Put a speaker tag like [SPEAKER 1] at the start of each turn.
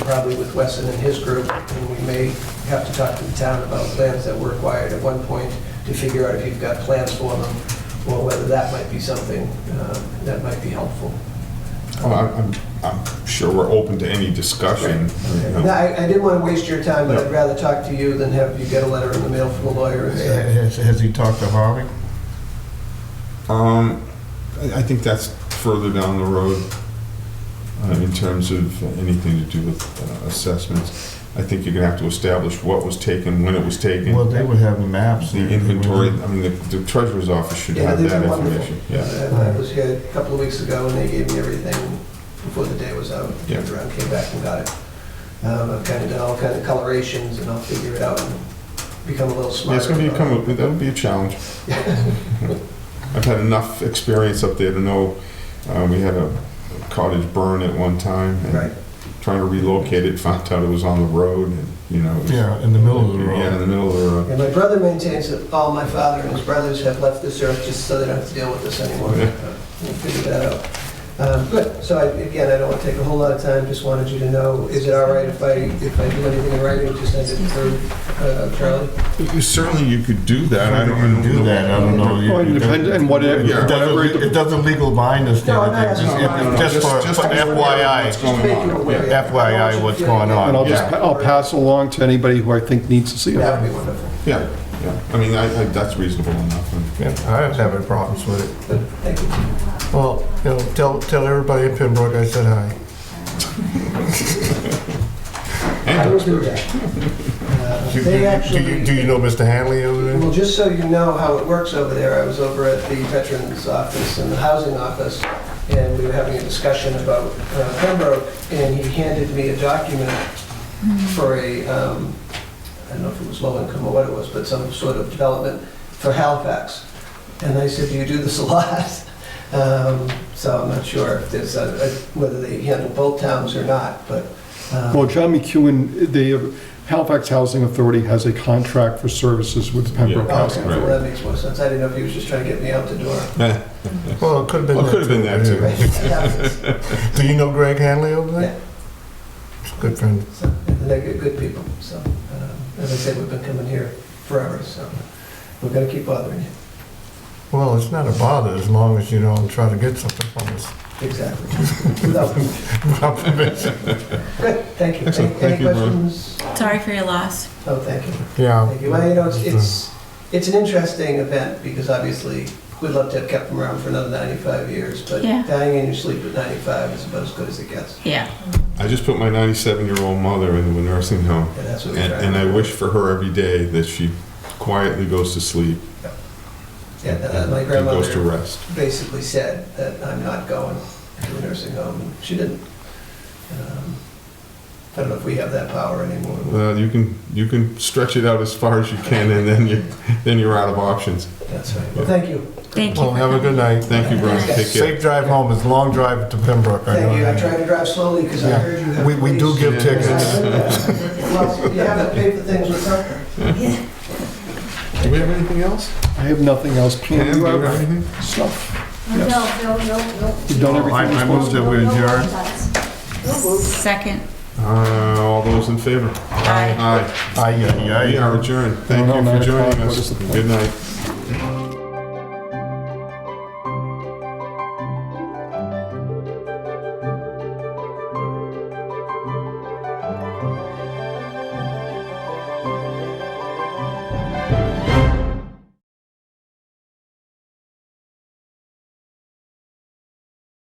[SPEAKER 1] probably with Weston and his group, and we may have to talk to the town about plans that were acquired at one point to figure out if you've got plans for them, or whether that might be something uh, that might be helpful.
[SPEAKER 2] Oh, I'm, I'm- I'm sure we're open to any discussion. you
[SPEAKER 1] No,
[SPEAKER 2] know.
[SPEAKER 1] I, I didn't want to waste your time, but
[SPEAKER 2] No.
[SPEAKER 1] I'd rather talk to you than have you get a letter in the mail from a lawyer and say,
[SPEAKER 3] Has, has he talked to Harvey?
[SPEAKER 2] Um, I, I think that's further down the road uh, in terms of anything to do with uh, assessments. I think you're gonna have to establish what was taken, when it was taken,
[SPEAKER 3] Well, they would have the maps.
[SPEAKER 2] the inventory, I mean, the the treasurer's office should
[SPEAKER 1] Yeah,
[SPEAKER 2] have
[SPEAKER 1] they've
[SPEAKER 2] that
[SPEAKER 1] been wonderful.
[SPEAKER 2] information. Yeah,
[SPEAKER 1] And I "Uh, was here a couple of weeks ago, and they gave me everything before the day was out.
[SPEAKER 2] Yeah.
[SPEAKER 1] Turned around, came back and got it. Um, I've kind of done all kind of colorations, and I'll figure it out and become a little
[SPEAKER 2] Yeah,
[SPEAKER 1] smarter.
[SPEAKER 2] it's gonna be, a come- that'll be a challenge. I've had enough experience up there to know, uh, we had a cottage burn at one time. and
[SPEAKER 1] Right.
[SPEAKER 2] Trying to relocate it, found out it was on the road and, you know. it was-
[SPEAKER 3] Yeah, in the middle of the
[SPEAKER 2] Yeah, in
[SPEAKER 3] road.
[SPEAKER 2] the middle of the road.
[SPEAKER 1] And my brother maintains that all my father and his brothers have left this earth just so they don't have to deal with this anymore.
[SPEAKER 2] Yeah.
[SPEAKER 1] Uh, We'll figure that out. Um, Good, so I, again, I don't want to take a whole lot of time, just wanted you to know, is it all right if I, if I do anything in writing, just send it through uh, Charlie?
[SPEAKER 2] You- Certainly you could do that. I
[SPEAKER 3] Whether
[SPEAKER 2] don't
[SPEAKER 3] you can do
[SPEAKER 2] know.
[SPEAKER 3] that, I don't know. You-
[SPEAKER 4] Well, it
[SPEAKER 3] you-
[SPEAKER 4] depends on what-
[SPEAKER 3] It
[SPEAKER 2] yeah,
[SPEAKER 3] doesn't,
[SPEAKER 4] whatever-
[SPEAKER 3] le- it doesn't legal bind us to
[SPEAKER 1] No, I'm not
[SPEAKER 3] anything,
[SPEAKER 1] asking
[SPEAKER 2] No, no, no,
[SPEAKER 3] just- just for
[SPEAKER 2] just- just
[SPEAKER 3] for
[SPEAKER 2] to be aware of
[SPEAKER 3] FYI.
[SPEAKER 2] what's going
[SPEAKER 1] Just
[SPEAKER 2] on.
[SPEAKER 1] make you aware.
[SPEAKER 2] Yeah.
[SPEAKER 3] FYI, what's going
[SPEAKER 4] And I'll
[SPEAKER 3] on.
[SPEAKER 4] just,
[SPEAKER 2] Yeah.
[SPEAKER 4] I'll pass along to anybody who I think needs to see
[SPEAKER 1] That would
[SPEAKER 4] it.
[SPEAKER 1] be wonderful.
[SPEAKER 2] Yeah, yeah. I mean, I, I, that's reasonable enough. and-
[SPEAKER 3] Yeah, I was having problems with it.
[SPEAKER 1] Good, Thank you.
[SPEAKER 3] Well, you know, tell, tell everybody in Pembroke I said hi.
[SPEAKER 1] I will do that. Uh,
[SPEAKER 3] Do you-
[SPEAKER 1] They
[SPEAKER 3] do you, do
[SPEAKER 1] actually,
[SPEAKER 3] you know Mr. Hanley over there?
[SPEAKER 1] well, just so you know how it works over there, I was over at the Veterans Office and the Housing Office, and we were having a discussion about uh, Pembroke, and he handed me a document for a, um, I don't know if it was low income or what it was, but some sort of development for Halifax. And I said, do you do this a lot? Um, So I'm not sure if there's, a- a- whether they handle both towns or not, but. um,
[SPEAKER 4] Well, John McEwen, the Halifax Housing Authority has a contract for services with Pembroke
[SPEAKER 2] Yeah.
[SPEAKER 4] Housing.
[SPEAKER 1] Okay,
[SPEAKER 2] Right.
[SPEAKER 1] well, oh, that makes more sense. I didn't know if he was just trying to get me out the door.
[SPEAKER 2] Eh,
[SPEAKER 3] Well, it could have been.
[SPEAKER 2] Well, it could've been that, too.
[SPEAKER 3] Yeah.
[SPEAKER 1] Yeah,
[SPEAKER 3] Do you know Greg Hanley over there? He's a Good friend.
[SPEAKER 1] so, and They're good- good people, so, um, as I said, we've been coming here forever, so we're gonna keep bothering you.
[SPEAKER 3] Well, it's not a bother as long as you don't try to get something from us.
[SPEAKER 1] Exactly. Without permission.
[SPEAKER 3] Without permission.
[SPEAKER 1] Good, thank you.
[SPEAKER 2] Excellent.
[SPEAKER 1] Any- Any
[SPEAKER 2] Thank you, Brian.
[SPEAKER 1] questions?
[SPEAKER 5] Sorry for your loss.
[SPEAKER 1] Oh, thank you.
[SPEAKER 3] Yeah.
[SPEAKER 1] Thank you. Well, you know, it's, it's, it's an interesting event because obviously we'd love to have kept them around for another 95 years, but
[SPEAKER 5] Yeah.
[SPEAKER 1] dying in your sleep at 95 is about as good as it gets.
[SPEAKER 5] Yeah.
[SPEAKER 2] I just put my ninety-seven-year-old mother into a nursing home.
[SPEAKER 1] And that's what we
[SPEAKER 2] And,
[SPEAKER 1] try.
[SPEAKER 2] and I wish for her every day that she quietly goes to sleep
[SPEAKER 1] Yeah, uh, my
[SPEAKER 2] and goes
[SPEAKER 1] grandmother
[SPEAKER 2] to rest.
[SPEAKER 1] basically said that I'm not going to a nursing home, and she didn't. Um, I don't know if we have that power anymore.
[SPEAKER 2] Well, Uh, you can, you can stretch it out as far as you can and then you, then you're out of options.
[SPEAKER 1] That's right. Well, thank you.
[SPEAKER 5] Thank you.
[SPEAKER 3] Well,
[SPEAKER 5] for
[SPEAKER 3] have a
[SPEAKER 5] coming.
[SPEAKER 3] good night.
[SPEAKER 2] Thank you, Brian. Take care.
[SPEAKER 3] Safe drive home. It's a long drive to Pembroke. I know
[SPEAKER 1] Thank you. I
[SPEAKER 3] that.
[SPEAKER 1] tried to drive slowly because I
[SPEAKER 3] Yeah.
[SPEAKER 1] heard you have.
[SPEAKER 3] We, we do
[SPEAKER 1] police.
[SPEAKER 3] give
[SPEAKER 2] Yeah.
[SPEAKER 3] tickets.
[SPEAKER 1] Well, you have to pay for things with something.
[SPEAKER 2] Do we have anything else?
[SPEAKER 4] I have nothing else.
[SPEAKER 2] Pam,
[SPEAKER 4] Pam,
[SPEAKER 2] do
[SPEAKER 4] you
[SPEAKER 2] you have
[SPEAKER 4] have
[SPEAKER 2] anything?
[SPEAKER 4] stuff?
[SPEAKER 6] No, no, no, no.
[SPEAKER 4] You've done everything
[SPEAKER 3] I-
[SPEAKER 4] you're
[SPEAKER 3] I
[SPEAKER 4] supposed
[SPEAKER 3] moved
[SPEAKER 4] to.
[SPEAKER 3] it. we adjourn?
[SPEAKER 5] Second.
[SPEAKER 2] Uh, all those in favor?
[SPEAKER 5] Aye.
[SPEAKER 2] Aye.
[SPEAKER 3] Aye, aye, aye.
[SPEAKER 2] We are adjourned. Thank
[SPEAKER 4] No,
[SPEAKER 2] you
[SPEAKER 4] no,
[SPEAKER 2] for
[SPEAKER 4] nine
[SPEAKER 2] joining
[SPEAKER 4] o'clock. What is
[SPEAKER 2] us.
[SPEAKER 4] the point?
[SPEAKER 2] Good night.